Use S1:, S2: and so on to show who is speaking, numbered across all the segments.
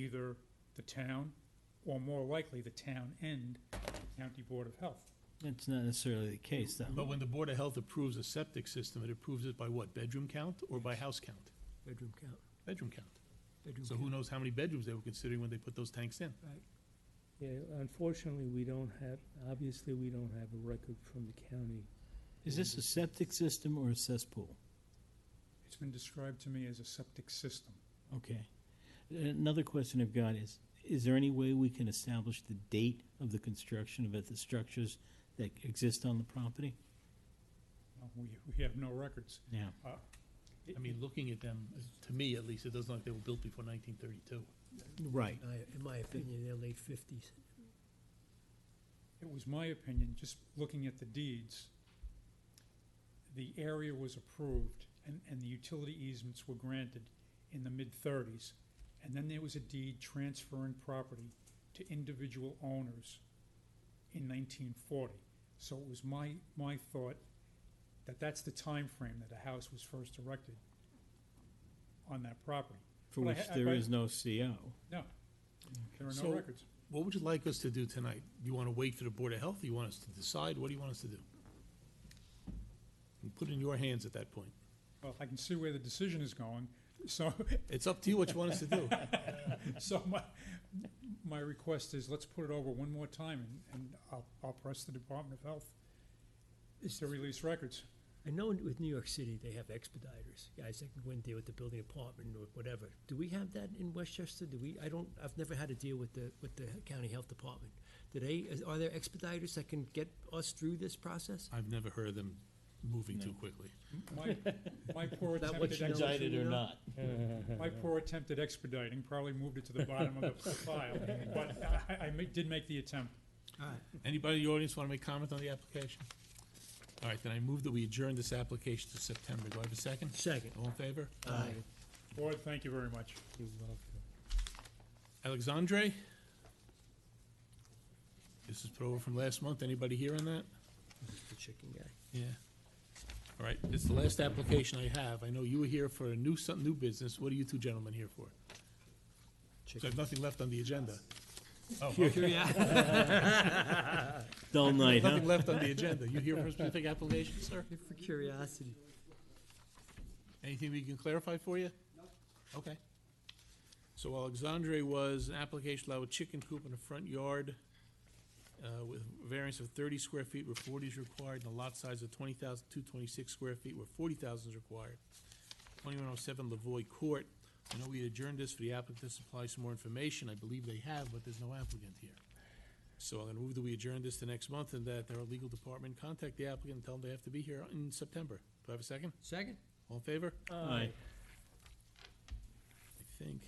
S1: either the town, or more likely, the town and the County Board of Health.
S2: That's not necessarily the case, though.
S3: But when the Board of Health approves a septic system, it approves it by what, bedroom count or by house count?
S4: Bedroom count,
S3: Bedroom count.
S4: bedroom
S3: So
S4: count.
S3: who knows how many bedrooms they were considering when they put those tanks in?
S5: Yeah, unfortunately, we don't have, obviously, we don't have a record from the county.
S2: Is this a septic system or a cesspool?
S1: It's been described to me as a septic system.
S2: Okay. Another question I've got is, is there any way we can establish the date of the construction of it, the structures that exist on the property?
S1: Uh, We, we have no records.
S2: Yeah.
S3: I mean, looking at them, uh, to me at least, it doesn't look like they were built before nineteen thirty-two.
S2: Right.
S4: I- In my opinion, they're late fifties.
S1: It was my opinion, just looking at the deeds, the area was approved and, and the utility easements were granted in the mid-thirties. And then there was a deed transferring property to individual owners in nineteen forty. So it was my, my thought that that's the time frame that a house was first erected on that property.
S2: For
S1: But I
S2: which
S1: ha-
S2: there
S1: but-
S2: is no CO.
S1: No, there are no
S3: So-
S1: records.
S3: What would you like us to do tonight? Do you want to wait for the Board of Health? Do you want us to decide? What do you want us to do? And Put it in your hands at that point.
S1: Well, I can see where the decision is going, so.
S3: It's up to you what you want us to do.
S1: So my, my request is, let's put it over one more time, and, and I'll, I'll press the Department of Health to release records.
S4: I know in- with New York City, they have expediters, guys that can go in there with the building department or whatever. Do we have that in Westchester? Do we, I don't, I've never had to deal with the, with the county health department. Do they, is- are there expediters that can get us through this process?
S3: I've never heard of them moving too quickly.
S1: My, my poor
S4: Is that what
S1: attempted,
S4: you know?
S1: ex-
S4: Indicted or not.
S1: my poor attempted expediting probably moved it to the bottom of the file, but I, I ma- did make the attempt.
S4: All right.
S3: Anybody in the audience want to make comment on the application? All right, then I move that we adjourn this application to September. Do I have a second?
S4: Second.
S3: All in favor?
S1: Board, thank you very much.
S3: Alexandre? This is put over from last month. Anybody here on that?
S4: The chicken guy.
S3: Yeah. All right, it's the last application I have. I know you were here for a new, some, new business. What are you two gentlemen here for? So I have nothing left on the agenda. Oh, okay.
S2: Dull night, huh?
S3: Nothing left on the agenda. You here for a specific application, sir?
S4: For curiosity.
S3: Anything we can clarify for you? No. Okay. So Alexandre was an application allowed a chicken coop in the front yard uh, with variance of thirty square feet where forty is required, and a lot size of twenty thousand, two twenty-six square feet where forty thousand is required. Twenty-one oh seven Lavoy Court. I know we adjourned this for the applicant to supply some more information. I believe they have, but there's no applicant here. So I'm gonna move that we adjourn this to next month and that our legal department contact the applicant and tell them they have to be here in September. Do I have a second?
S4: Second?
S3: All in favor?
S2: Aye.
S3: I think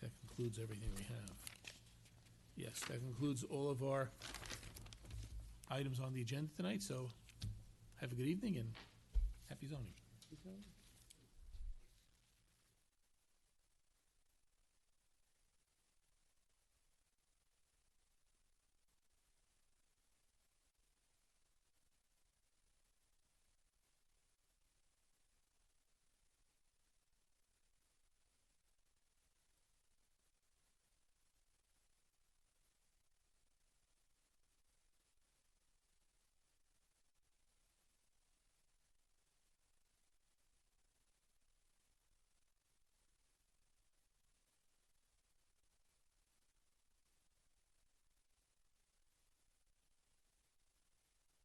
S3: that concludes everything we have. Yes, that concludes all of our items on the agenda tonight, so have a good evening and happy zoning.